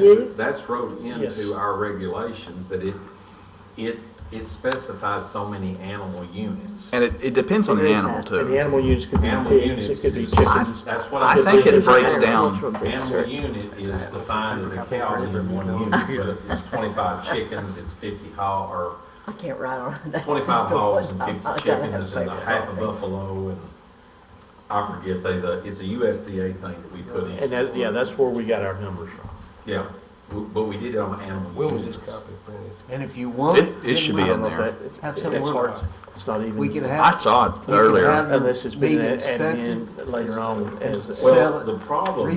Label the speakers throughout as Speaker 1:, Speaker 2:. Speaker 1: Use?
Speaker 2: That's wrote
Speaker 3: Yes.
Speaker 2: into our regulations that it, it, it specifies so many animal units.
Speaker 4: And it, it depends on the
Speaker 1: There is
Speaker 4: animal
Speaker 1: that.
Speaker 3: And
Speaker 4: too.
Speaker 3: the animal units could be
Speaker 2: Animal
Speaker 3: pigs, it
Speaker 2: units
Speaker 3: could be
Speaker 2: is,
Speaker 3: chickens.
Speaker 2: that's what
Speaker 4: I
Speaker 2: I.
Speaker 4: think it breaks
Speaker 1: Agricultural
Speaker 4: down.
Speaker 2: Animal
Speaker 1: district.
Speaker 2: unit is defined as a cow in one unit, but if it's twenty-five chickens, it's fifty hog, or
Speaker 1: I can't ride on that.
Speaker 2: twenty-five hogs and fifty chickens and a half a buffalo and I forget, there's a, it's a USDA thing that we put in.
Speaker 3: And that, yeah, that's where we got our numbers from.
Speaker 2: Yeah, w- but we did it on
Speaker 5: When
Speaker 2: animal
Speaker 5: was this
Speaker 2: units.
Speaker 5: copy printed?
Speaker 6: And if you want.
Speaker 4: It, it should be
Speaker 3: I don't
Speaker 4: in
Speaker 3: know if
Speaker 4: there.
Speaker 3: that- it's-
Speaker 6: Have some
Speaker 3: It's
Speaker 6: work.
Speaker 3: hard, it's not
Speaker 6: We can
Speaker 3: even,
Speaker 6: have.
Speaker 4: I saw
Speaker 6: we
Speaker 4: it
Speaker 6: can
Speaker 4: earlier.
Speaker 6: have them
Speaker 3: unless it's been
Speaker 6: being
Speaker 3: added
Speaker 6: inspected
Speaker 3: in later on as. as-
Speaker 2: Well,
Speaker 6: Sell it,
Speaker 2: the problem was,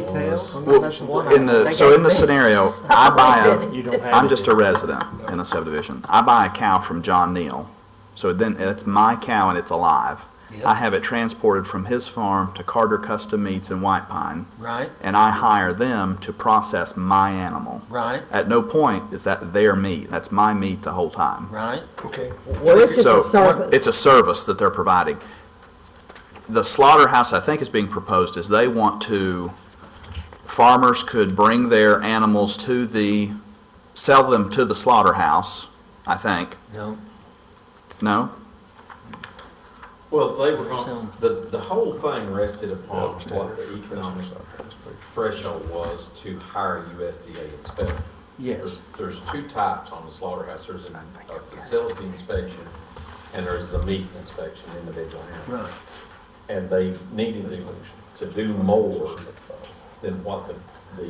Speaker 6: Retail.
Speaker 4: Well,
Speaker 6: That's one
Speaker 4: in
Speaker 6: item.
Speaker 4: the, so in the scenario, I buy
Speaker 3: You don't
Speaker 4: a,
Speaker 3: have.
Speaker 4: I'm
Speaker 3: it.
Speaker 4: just a resident in a subdivision. I buy a cow from John Neal. So then it's my cow and it's alive. I have it transported from his farm to Carter Custom Meats in White Pine
Speaker 6: Right,
Speaker 4: and I hire them to process my animal.
Speaker 6: right,
Speaker 4: At no point is that their meat. That's my meat the whole time.
Speaker 6: right.
Speaker 5: Okay,
Speaker 1: Well, it's just
Speaker 4: So,
Speaker 1: a service.
Speaker 4: It's a service that they're providing. The slaughterhouse, I think, is being proposed is they want to, farmers could bring their animals to the, sell them to the slaughterhouse, I think.
Speaker 6: No.
Speaker 4: No?
Speaker 2: well, they were, going- the, the whole thing rested upon what the economic threshold was to hire USDA inspector.
Speaker 3: Yes.
Speaker 2: There's there's two types on the slaughterhouse, there's a a facility inspection, and there's the meat inspection, individual animal.
Speaker 6: Right.
Speaker 2: And they needed to, to do more than what the,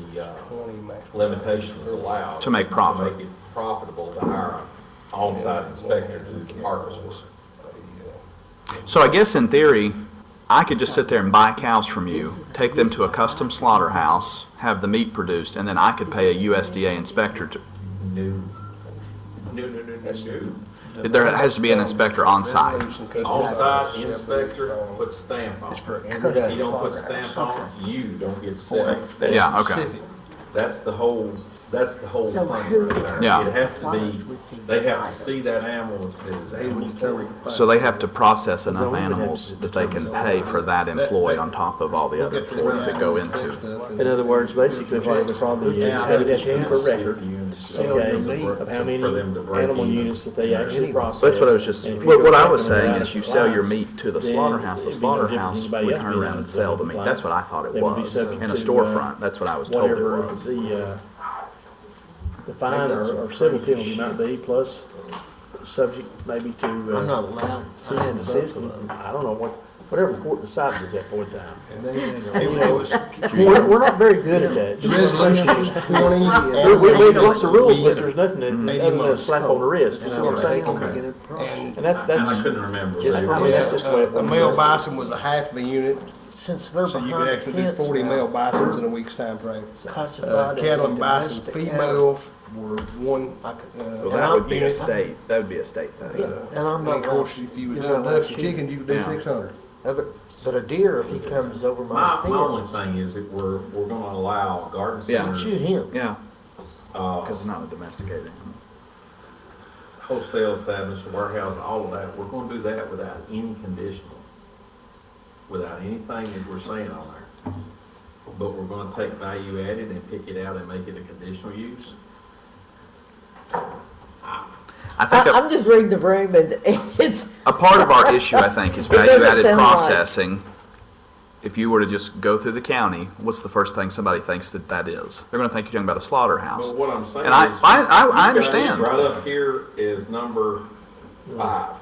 Speaker 2: the, uh,
Speaker 5: twenty max.
Speaker 2: limitations allowed.
Speaker 4: To make profit.
Speaker 2: To make it profitable to hire a on-site inspector to do the harvest work.
Speaker 4: So I guess in theory, I could just sit there and buy cows from you, take them to a custom slaughterhouse, have the meat produced, and then I could pay a USDA inspector to,
Speaker 2: New, new, new, new, new,
Speaker 4: there has to be an inspector on site.
Speaker 2: new. On-site inspector, put stamp on it.
Speaker 5: Everyday
Speaker 2: You don't put
Speaker 5: slaughterhouse.
Speaker 2: stamp on it, you don't get set.
Speaker 4: Yeah, okay.
Speaker 2: That's the whole, that's the whole
Speaker 1: So
Speaker 2: thing
Speaker 1: who-
Speaker 2: right there.
Speaker 4: Yeah.
Speaker 2: It has to be, they have to see that animal as animal care.
Speaker 4: So they have to process
Speaker 3: So
Speaker 4: enough
Speaker 3: we would have
Speaker 4: animals
Speaker 3: to
Speaker 4: that they can pay for that employee on top of all the other employees that go into.
Speaker 3: In other words, basically what the problem is, they
Speaker 2: Yeah,
Speaker 3: would have to have a
Speaker 2: it's
Speaker 3: record,
Speaker 2: 50 units.
Speaker 3: okay,
Speaker 6: your meat
Speaker 3: of how many
Speaker 2: For them to break
Speaker 3: animal
Speaker 2: even.
Speaker 3: units that they actually process.
Speaker 4: That's what I was just,
Speaker 3: And if you
Speaker 4: what,
Speaker 3: go
Speaker 4: what I
Speaker 3: back
Speaker 4: was
Speaker 3: and
Speaker 4: saying
Speaker 3: look
Speaker 4: is
Speaker 3: at
Speaker 4: you
Speaker 3: the
Speaker 4: sell your
Speaker 3: lines,
Speaker 4: meat to the
Speaker 3: then
Speaker 4: slaughterhouse, the
Speaker 3: it'd be no different than
Speaker 4: slaughterhouse
Speaker 3: anybody
Speaker 4: would
Speaker 3: else
Speaker 4: turn
Speaker 3: being
Speaker 4: around
Speaker 3: on
Speaker 4: and sell the meat.
Speaker 3: the
Speaker 4: That's what I thought it
Speaker 3: They would be
Speaker 4: was,
Speaker 3: subject
Speaker 4: in
Speaker 3: to,
Speaker 4: a
Speaker 3: uh,
Speaker 4: storefront, that's what I was told it
Speaker 3: whatever
Speaker 4: was.
Speaker 3: the, uh, the fine or or civil penalty might be, plus subject maybe to. uh,
Speaker 6: I'm not allowed.
Speaker 3: cease and desist, and I don't know what, whatever the court decides at that point in time. We're, we're not very good at that.
Speaker 5: Resolution is twenty.
Speaker 3: We,
Speaker 5: and-
Speaker 3: we, we've got the rules, but there's nothing that- other than a slap on the wrist, you see what I'm saying?
Speaker 2: Okay.
Speaker 6: saying?
Speaker 3: And that's,
Speaker 2: And I
Speaker 3: that's,
Speaker 2: couldn't remember.
Speaker 6: Just
Speaker 3: I mean, that's just the way it
Speaker 5: A male
Speaker 3: works.
Speaker 5: bison was a half of a unit,
Speaker 6: Since they're
Speaker 5: so you could
Speaker 6: behind the
Speaker 5: actually do
Speaker 6: fence
Speaker 5: forty male
Speaker 6: now,
Speaker 5: bisons in a week's time frame. Uh,
Speaker 6: classified as
Speaker 5: Cattle
Speaker 6: a
Speaker 5: and bison
Speaker 6: domestic
Speaker 5: female
Speaker 6: animal.
Speaker 5: were one,
Speaker 6: I
Speaker 5: uh,
Speaker 6: could- that would be a
Speaker 4: state, that would be a state thing.
Speaker 6: Yeah, And I'm
Speaker 5: and
Speaker 6: not.
Speaker 5: of course,
Speaker 6: allowed-
Speaker 5: if you were
Speaker 6: you're
Speaker 5: doing
Speaker 6: not allowed
Speaker 5: ducks and
Speaker 6: to shoot
Speaker 5: chickens, you could do
Speaker 4: Yeah.
Speaker 5: six hundred.
Speaker 6: Other, but a deer, if he comes over my
Speaker 2: My, my only
Speaker 6: fence,
Speaker 2: thing is that we're, we're gonna allow garden
Speaker 4: Yeah.
Speaker 2: centers,
Speaker 6: shoot him.
Speaker 4: Yeah,
Speaker 2: uh,
Speaker 4: because it's not a domesticated animal.
Speaker 2: wholesale establishment, warehouse, all of that, we're gonna do that without any conditional, without anything that we're saying on there. But we're gonna take value added and pick it out and make it a conditional use.
Speaker 4: I think
Speaker 1: I,
Speaker 4: a,
Speaker 1: I'm just reading the room and it's,
Speaker 4: a part of our issue, I think, is
Speaker 1: It doesn't
Speaker 4: value-added
Speaker 1: sound right.
Speaker 4: processing. If you were to just go through the county, what's the first thing somebody thinks that that is? They're gonna think you're talking about a slaughterhouse.
Speaker 2: But what I'm saying is.
Speaker 4: And I, I, I-
Speaker 2: you've got
Speaker 4: I
Speaker 2: it
Speaker 4: understand.
Speaker 2: Right up here is number five.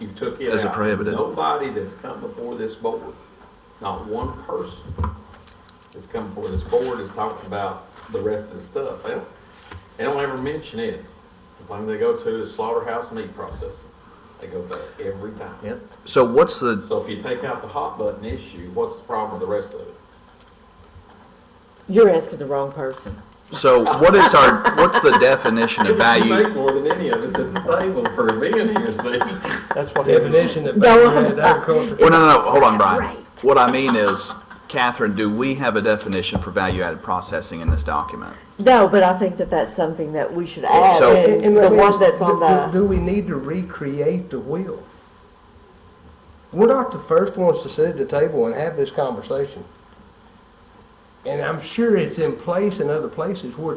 Speaker 2: You've took it out.
Speaker 4: As a prohibited.
Speaker 2: Nobody that's come before this board, not one person that's come before this board has talked about the rest of the stuff. They don't, they don't ever mention it. The thing they go to is slaughterhouse meat processing. They go there every time.
Speaker 6: Yep.
Speaker 4: So what's the,
Speaker 2: So if you take out the hot button issue, what's the problem with the rest of it?
Speaker 1: you're asking the wrong person.
Speaker 4: so what is our, what's the definition of
Speaker 2: You
Speaker 4: value?
Speaker 2: make more than any of us at the table for being here, see?
Speaker 3: That's what happens.
Speaker 5: Definition of
Speaker 1: No.
Speaker 5: value-added agriculture.
Speaker 4: Well, no, no, no, hold on, Brian. What I mean is, Catherine, do we have a definition for value-added processing in this document?
Speaker 1: No, but I think that that's something that we should add
Speaker 4: So-
Speaker 1: in,
Speaker 5: And
Speaker 1: the
Speaker 5: let me
Speaker 1: one
Speaker 5: ask,
Speaker 1: that's on
Speaker 5: do-
Speaker 1: the,
Speaker 5: Do do we need to recreate the wheel? We're not the first ones to sit at the table and have this conversation. And I'm sure it's in place in other places where it's